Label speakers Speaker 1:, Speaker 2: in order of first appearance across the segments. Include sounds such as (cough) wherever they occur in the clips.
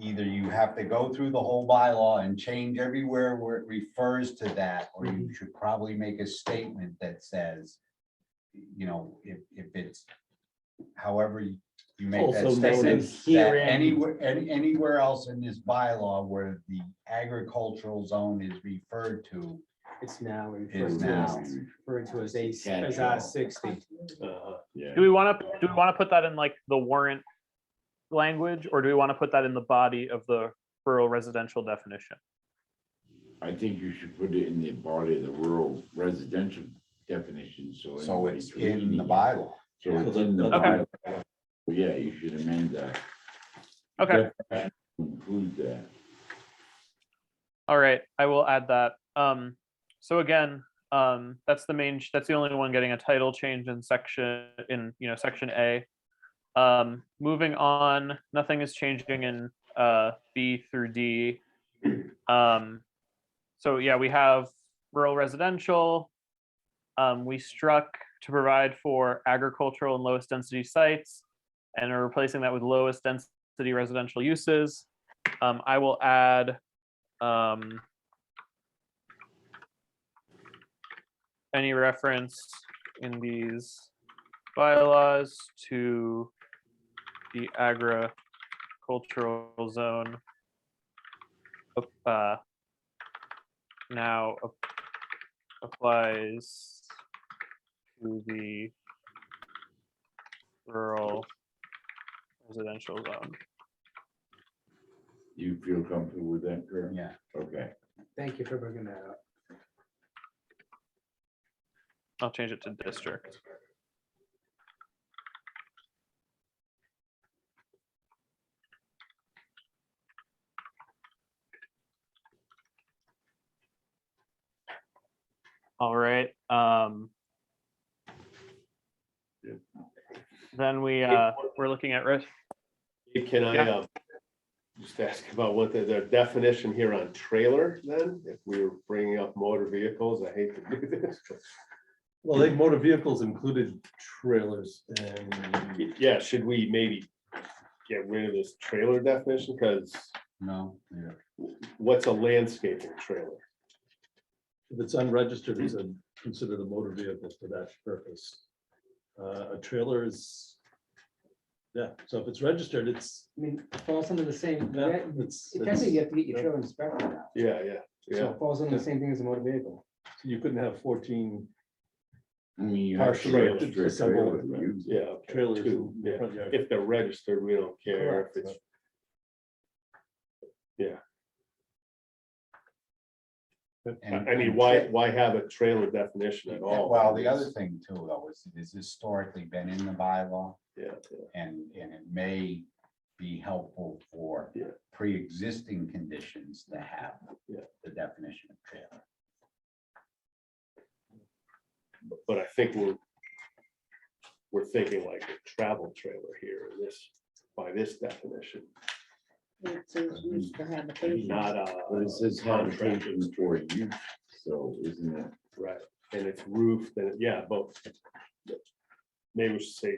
Speaker 1: either you have to go through the whole bylaw and change everywhere where it refers to that, or you should probably make a statement that says, you know, if, if it's however you you make that
Speaker 2: Also noted
Speaker 1: statement, that
Speaker 2: herein.
Speaker 1: anywhere, any, anywhere else in this bylaw where the agricultural zone is referred to,
Speaker 2: It's now
Speaker 1: Is
Speaker 2: referred to as,
Speaker 1: now.
Speaker 2: referred to as A, as
Speaker 1: Catch-all.
Speaker 2: R sixty.
Speaker 3: Yeah.
Speaker 4: Do we want to, do we want to put that in like the warrant language, or do we want to put that in the body of the rural residential definition?
Speaker 3: I think you should put it in the body of the rural residential definition, so.
Speaker 1: so it's
Speaker 3: anybody
Speaker 1: in the
Speaker 3: reading it-
Speaker 1: bylaw.
Speaker 3: So it's in the
Speaker 4: Okay.
Speaker 3: bylaw. Well, Yeah, you should amend that.
Speaker 4: Okay,
Speaker 3: Definition to Include that.
Speaker 4: all right, I will add that. Um, so again, um, that's the main, that's the only one getting a title change in section, in, you know, section A. Um, moving on, nothing is changing in, uh, B through D. Um, so yeah, we have rural residential. Um, we struck to provide for agricultural and lowest density sites and are replacing that with lowest density residential uses. Um, I will add, um, any reference in these bylaws to the agricultural zone ap- uh, now ap- applies to the rural residential zone.
Speaker 3: You feel comfortable with that, Kurt?
Speaker 1: Yeah,
Speaker 3: Okay.
Speaker 2: Thank you for bringing that up.
Speaker 4: I'll change it to district. All right, um.
Speaker 3: Yep.
Speaker 4: Then we, uh, we're looking at risk.
Speaker 5: Can I,
Speaker 4: Yeah.
Speaker 5: um, just ask about what the, the definition here on trailer then? If we were bringing up motor vehicles, I hate to do this.
Speaker 6: Well, they motor vehicles included trailers and
Speaker 5: but Yeah, should we maybe get rid of this trailer definition? Because
Speaker 1: no, yeah.
Speaker 5: what's a landscaping trailer?
Speaker 6: if it's unregistered, it's a- considered a motor vehicle for that purpose. Uh, A trailer is, yeah, so if it's registered, it's,
Speaker 7: I mean, it falls under the same,
Speaker 6: Yeah,
Speaker 7: yeah,
Speaker 6: it's,
Speaker 7: it technically you
Speaker 6: it's-
Speaker 7: have to get your trailer inspected now,
Speaker 5: Yeah, yeah,
Speaker 7: so
Speaker 5: yeah.
Speaker 7: it falls under the same thing as a motor vehicle.
Speaker 6: you couldn't have fourteen
Speaker 3: I mean, you have
Speaker 6: partially
Speaker 3: trailer, trailer,
Speaker 6: accessible
Speaker 3: trailer, you-
Speaker 5: Yeah. okay,
Speaker 6: trailers
Speaker 5: two,
Speaker 6: in the
Speaker 5: yeah.
Speaker 6: front yard.
Speaker 5: If they're registered, we don't care. If
Speaker 6: Correct.
Speaker 5: it's,
Speaker 1: And-
Speaker 5: I I mean, why, why have a trailer definition at all?
Speaker 1: Well, the other thing too, though, is it has historically been in the bylaw.
Speaker 5: Yeah, yeah.
Speaker 1: And, and it may be helpful for
Speaker 5: Yeah.
Speaker 1: pre-existing conditions to have
Speaker 5: Yeah.
Speaker 1: the definition of trailer.
Speaker 5: But I think we're, we're thinking like a travel trailer here, in this, by this definition,
Speaker 8: It says used for habitation.
Speaker 5: not a.
Speaker 3: But it says
Speaker 5: contractor.
Speaker 3: habitation for you, so isn't it?
Speaker 5: Right, and it's roof, then, yeah, but maybe we should say,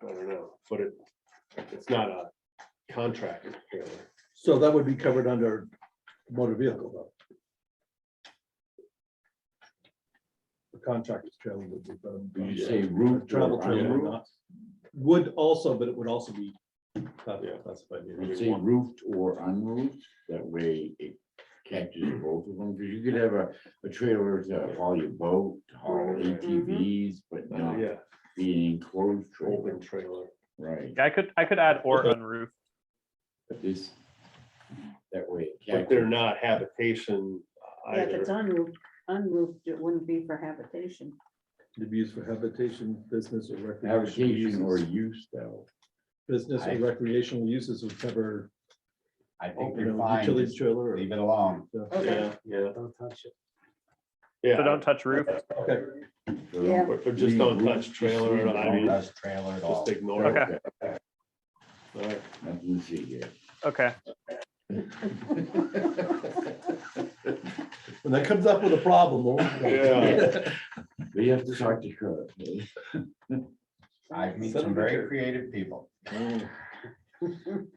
Speaker 5: I don't know, but it, it's not a contractor trailer.
Speaker 6: So that would be covered under motor vehicle though. The contractor's trailer would be. covered
Speaker 3: Would you
Speaker 6: under-
Speaker 3: say roof? or
Speaker 6: Travel trailer,
Speaker 3: unroofed?
Speaker 6: not, would also, but it would also be class-
Speaker 5: Yeah.
Speaker 6: classified.
Speaker 3: Would you say roofed or unroofed, that way it catches both of them, because you could have a, a trailer to haul your boat, to haul
Speaker 5: Right.
Speaker 3: ATVs, but not
Speaker 5: Oh, Yeah,
Speaker 3: be an enclosed trailer,
Speaker 5: open trailer.
Speaker 3: right?
Speaker 4: I could, I could add or unroof.
Speaker 3: But this, that way. it
Speaker 5: But they're
Speaker 3: catches-
Speaker 5: not habitation
Speaker 8: Yeah, if it's
Speaker 5: either.
Speaker 8: unroofed, unroofed, it wouldn't be for habitation.
Speaker 6: To be used for habitation, business or recreational
Speaker 3: Habitation or
Speaker 6: uses.
Speaker 3: use though.
Speaker 6: Business or recreational uses would cover,
Speaker 1: I think
Speaker 6: you
Speaker 1: you're
Speaker 6: know,
Speaker 1: fine,
Speaker 6: utility
Speaker 1: just
Speaker 6: trailer. or-
Speaker 1: leave it alone.
Speaker 8: Okay,
Speaker 5: Yeah, yeah,
Speaker 2: Don't touch it.
Speaker 4: So
Speaker 5: yeah,
Speaker 4: don't touch roof.
Speaker 6: Okay,
Speaker 3: so
Speaker 8: Yeah.
Speaker 5: or or just don't
Speaker 3: leave
Speaker 5: touch
Speaker 3: roof,
Speaker 5: trailer,
Speaker 3: just leave
Speaker 5: I
Speaker 3: it
Speaker 5: mean,
Speaker 3: alone.
Speaker 1: Does trailer at all.
Speaker 5: just ignore it.
Speaker 4: Okay.
Speaker 5: All right.
Speaker 3: Nothing to see (laughs) here.
Speaker 4: Okay,
Speaker 6: when that comes up with a
Speaker 1: (laughs)
Speaker 6: problem. we'll- (laughs)
Speaker 5: Yeah.
Speaker 3: We have to talk to Kurt.
Speaker 1: I've met
Speaker 6: Send
Speaker 1: some
Speaker 6: them a
Speaker 1: very
Speaker 6: picture. Oh.
Speaker 1: creative people.
Speaker 3: Mm.
Speaker 4: um,